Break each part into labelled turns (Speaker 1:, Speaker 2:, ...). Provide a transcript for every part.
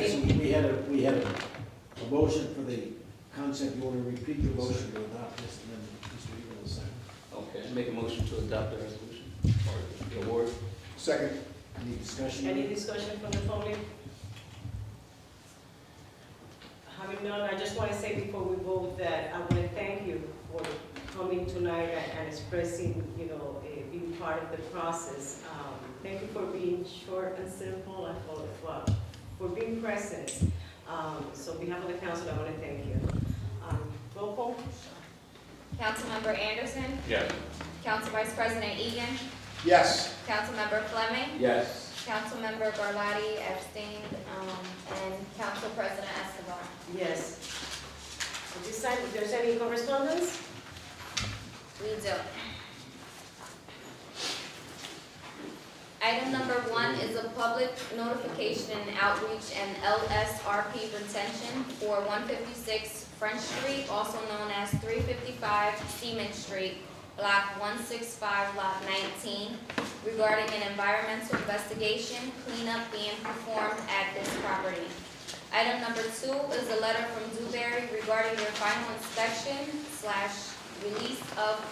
Speaker 1: had a, we had a a motion for the concept, you want to repeat your motion to adopt this, and then Mr. Eagle will second.
Speaker 2: Okay, I make a motion to adopt the resolution, or the award.
Speaker 3: Second.
Speaker 1: Any discussion?
Speaker 4: Any discussion from the public? Having none, I just want to say before we vote that I want to thank you for coming tonight and and expressing, you know, eh, being part of the process. Um, Thank you for being short and simple and full of love, for being present. Um, So on behalf of the council, I want to thank you. Um, Roll call?
Speaker 5: Councilmember Anderson,
Speaker 2: Yes.
Speaker 5: Council Vice President Egan,
Speaker 3: Yes.
Speaker 5: Councilmember Fleming,
Speaker 2: Yes.
Speaker 5: Councilmember Garlotti abstained, um, and Council President Escobar.
Speaker 4: Yes. At this time, if there's any correspondence?
Speaker 5: We do. Item number one is a public notification and outreach and LSRP retention for one fifty-six French Street, also known as three fifty-five Seaman Street, block one six five, lot nineteen, regarding an environmental investigation cleanup being performed at this property. Item number two is a letter from Dewberry regarding their final inspection slash release of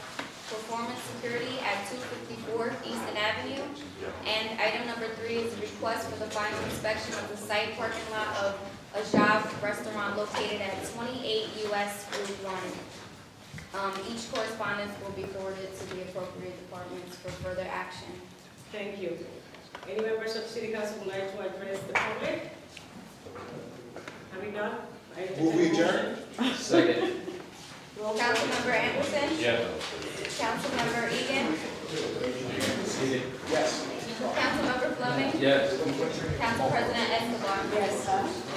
Speaker 5: performance security at two fifty-four Easton Avenue. And item number three is a request for the final inspection of the site parking lot of Ajav Restaurant located at twenty-eight US Route one. Um, each correspondence will be forwarded to the appropriate departments for further action.
Speaker 4: Thank you. Any members of City Council would like to address the public? Having none? I entertain
Speaker 3: Will
Speaker 4: a
Speaker 3: we
Speaker 4: motion.
Speaker 3: adjourn?
Speaker 2: Second.
Speaker 4: Roll call.
Speaker 5: Councilmember Anderson,
Speaker 2: Yes.
Speaker 5: Councilmember Egan,
Speaker 3: Yes.
Speaker 5: Councilmember Fleming,
Speaker 2: Yes.
Speaker 5: Council President Escobar.
Speaker 4: Yes.